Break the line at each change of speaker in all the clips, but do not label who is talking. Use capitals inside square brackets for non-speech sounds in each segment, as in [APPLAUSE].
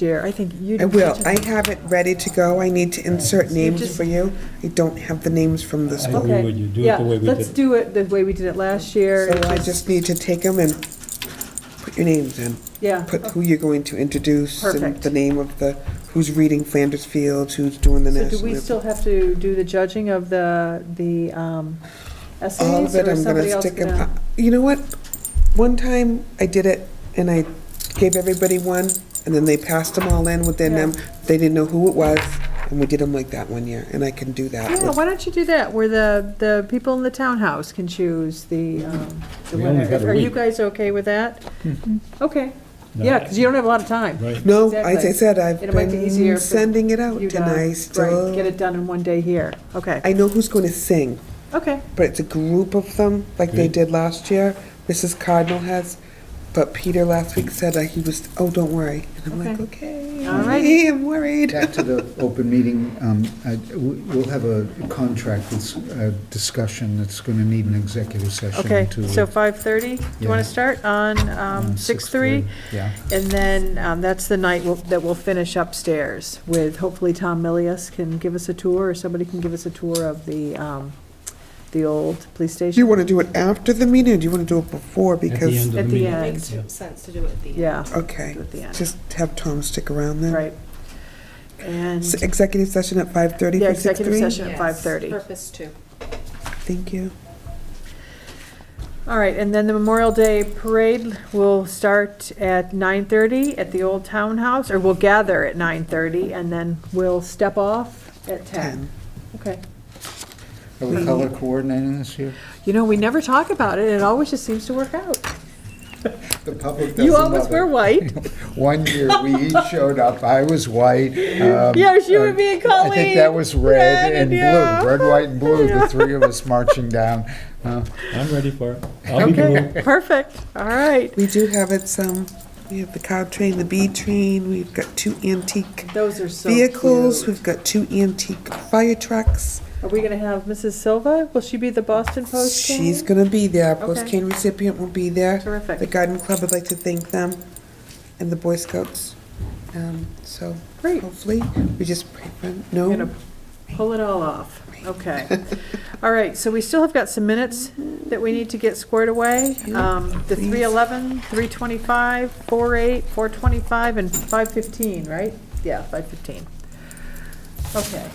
year. I think you.
I
did
will.
such a-
I have it ready to go. I need to insert names for you. I don't have the names from this
I
book,
agree
Okay.
with you. Do it
Yeah,
the way we
Let's
did.
do it the way we did it last year.
so
It
I
was-
just need to take them and put your names in.
Yeah,
Put who you're going to introduce and
Perfect.
the name of the, who's reading Flanders Fields, who's doing the
so
national.
do we
anthem.
still have to do the judging of the, the um,
All of
essays?
it,
or is
I'm
somebody
gonna
else
stick
going
'em- I- You know what? One time I did it and I gave everybody one and then they passed them all in with their
Yeah.
name. They didn't know who it was and we did them like that one year and I can do that.
Yeah,
with-
why don't you do that, where the, the people in the townhouse can choose the, um, the
We only
winner?
got a
Are you
week. Hmm.
guys okay with that? Okay, yeah, because you don't have a lot of time.
Right.
No, as I
Exactly.
said, I've
It might be easier
been
for
sending it out
You
and I
guys, right, get
still,
it done in one day here, okay,
I know who's going to sing,
okay,
but it's a group of them, like they
Mm.
did last year. Mrs. Cardinal has, but Peter last week said uh, he was, oh, don't worry. And I'm like, okay,
All righty.
[LAUGHS] I'm worried.
Back to the open meeting, um, I- we- we'll have a contract that's, uh, discussion that's going to need an executive session to.
okay, so five thirty, do you want
Yeah.
to start on,
um,
um, six three?
Yeah.
And then, um, that's the night we'll- that we'll finish upstairs with, hopefully Tom Millius can give us a tour, or somebody can give us a tour of the, um, the old police
Do you
station.
want to do it after the meeting or do you want to do it before?
At the
Because,
end of the
At the
meeting.
end.
It makes sense to do it at the end.
Yeah,
okay,
at the end,
just have Tom stick around then.
right. And,
S- Executive session at 5:30 for 6:30?
yeah, executive session at
Yes,
five thirty.
Purpose two.
Thank you.
All right, and then the Memorial Day Parade will start at 9:30 at the Old Townhouse, or we'll gather at 9:30, and then we'll step off at 10.
Ten.
Okay.
Are
Mm-hmm.
we color coordinating this year?
You know, we never talk about it, and it always just seems to work out.
The public doesn't
You always
love
were
it.
white. [LAUGHS]
One year, we each showed up, I was white. um,
Yes, you were
uh,
being
I think that
Colleen.
was
Red
red
and
and
yeah.
blue, red, white, and
[LAUGHS]
blue,
Yeah.
the three of us marching down. Uh,
I'm ready for it. I'll be blue.
Perfect, all right.
We do have it some, we have the cow train, the bee train, we've got two antique
Those are so
vehicles,
cute.
we've got two antique fire trucks.
Are we going to have Mrs. Silva? Will she be the Boston Post candidate?
She's gonna be there, Post
Okay.
cane recipient will be there. The
Terrific,
garden club would like to thank them, and the Boy Scouts. Um, So
great.
hopefully, we just pray for,
We're going
no,
to pull it all off. Okay. All right, so we still have got some minutes that we need to get squared away. Um, The
Please.
311, 325, 48, 425, and 515, right? Yeah, 515. Okay.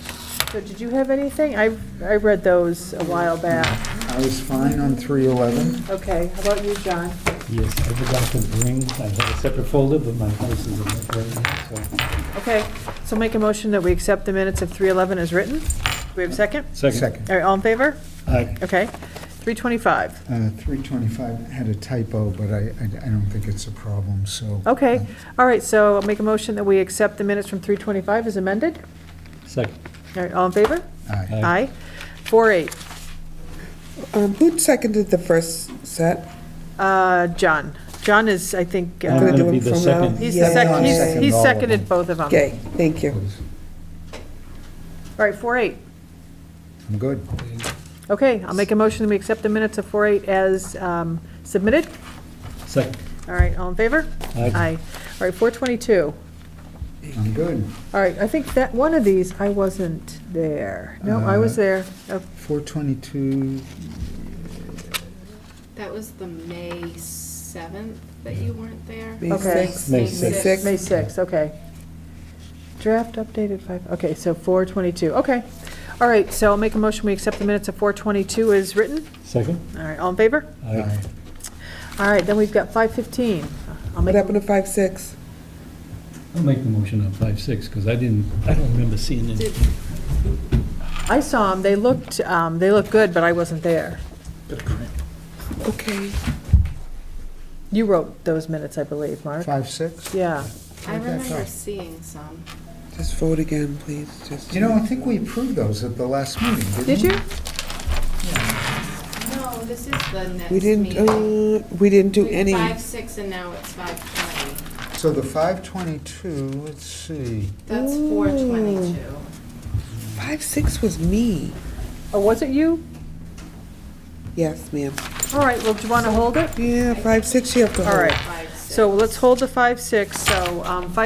So did you have anything? I, I read those a while back.
I was fine on 311.
Okay, how about you, John?
Yes, I forgot to bring, I had a separate folder, but my place is in it right now, so.
Okay, so make a motion that we accept the minutes of 311 as written. Do we have a second?
Second.
All right, all in favor?
Aye.
Okay. 325.
Uh, 325 had a typo, but I, I I don't think it's a problem, so.
Okay, all right, so I'll make a motion that we accept the minutes from 3:25 as amended.
Second.
All right, all in favor?
Aye.
Aye.
Aye. 4:08,
[LAUGHS] um, who seconded the first set?
uh, John. John is, I think,
I'm
uh,
Gonna
gonna
do
be
it
the
from now.
second.
he's
Yeah,
the
John
second, he's
seconded
he's
all of
seconded
them.
both of them. All
Okay, thank you.
right, 4:08.
I'm good.
Okay, I'll make a motion that we accept the minutes of 4:08 as um, submitted.
Second.
All right, all in favor?
Aye.
All right, 4:22.
I'm good.
All right, I think that, one of these, I wasn't there. No, I was
Uh,
Uh-huh.
there. Oh,
422,
That was the May seventh that you weren't there.
May
Okay.
sixth.
May
sixth.
sixth.
May 6, okay. Draft updated 5, okay, so 422, okay. All right, so I'll make a motion, we accept the minutes of 422 as written.
Second.
All right, all in favor?
Aye.
All right, then we've got 515. I'll
What
make,
happened to five, six?
I'll make the motion on five, six, because I didn't, I don't remember seeing it.
Did,
I saw them, they looked, um, they looked good, but I wasn't there.
Okay.
You wrote those minutes, I believe, Mark?
56?
Yeah,
I
Where'd that
remember
go?
seeing some.
Just vote again, please, just.
You know, I think we approved those at the last meeting, didn't we?
did you?
No, this is the next
We didn't,
meeting.
uh, we didn't do
We-
any.
Five, six, and now it's five twenty.
So the 522, let's see.
That's four twenty-two.
Five, six was me.
Or was it you?
Yes, ma'am.
All right, well, do you want to hold it?
Yeah, five, six, you have to
All
hold.
right, so let's hold the 5, 6, so um, 5